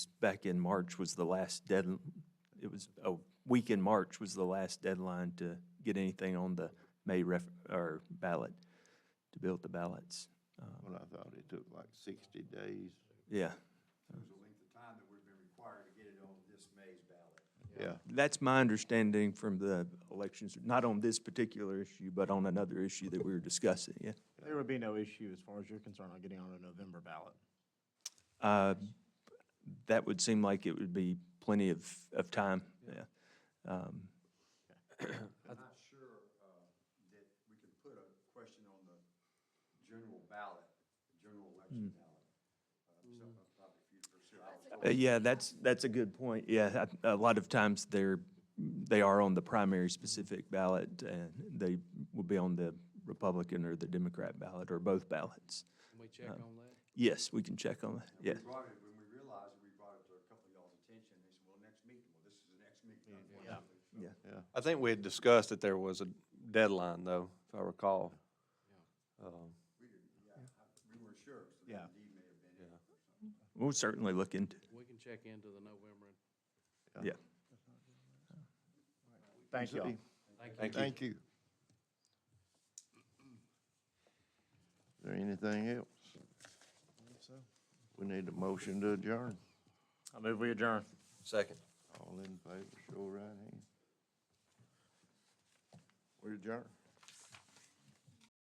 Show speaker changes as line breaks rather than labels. back in March was the last dead, it was, a week in March was the last deadline to get anything on the May ref, or ballot, to build the ballots. Um,
Well, I thought it took like sixty days.
Yeah,
was the length of time that we've been required to get it on this May's ballot.
Yeah,
that's my understanding from the elections, not on this particular issue, but on another issue that we were discussing, yeah.
There would be no issue as far as you're concerned on getting on a November ballot.
Uh, That would seem like it would be plenty of, of time, yeah. Um,
I'm not sure uh, that we can put a question on the general ballot, the general election
Hmm.
ballot. Uh, So uh, probably for you to pursue. I was
Uh, Yeah, that's, that's a good point. Yeah, I- a lot of times they're, they are on the primary specific ballot, and they will be on the Republican or the Democrat ballot, or both ballots.
Can we check on that?
Yes, we can check on that, yes.
We brought it, when we realized it, we brought it to a couple of y'all's attention, they said, well, next meeting, well, this is the next meeting, unfortunately. So-
Yeah.
I think we had discussed that there was a deadline, though, if I recall. Um,
We weren't sure, so
Yeah.
that indeed may have been it.
We'll certainly look into,
We can check into the November.
yeah.
Thank you all.
Thank you.
thank you. Is there anything else? We need a motion to adjourn.
I move we adjourn.
Second.
All in favor, show of right hand. We adjourn.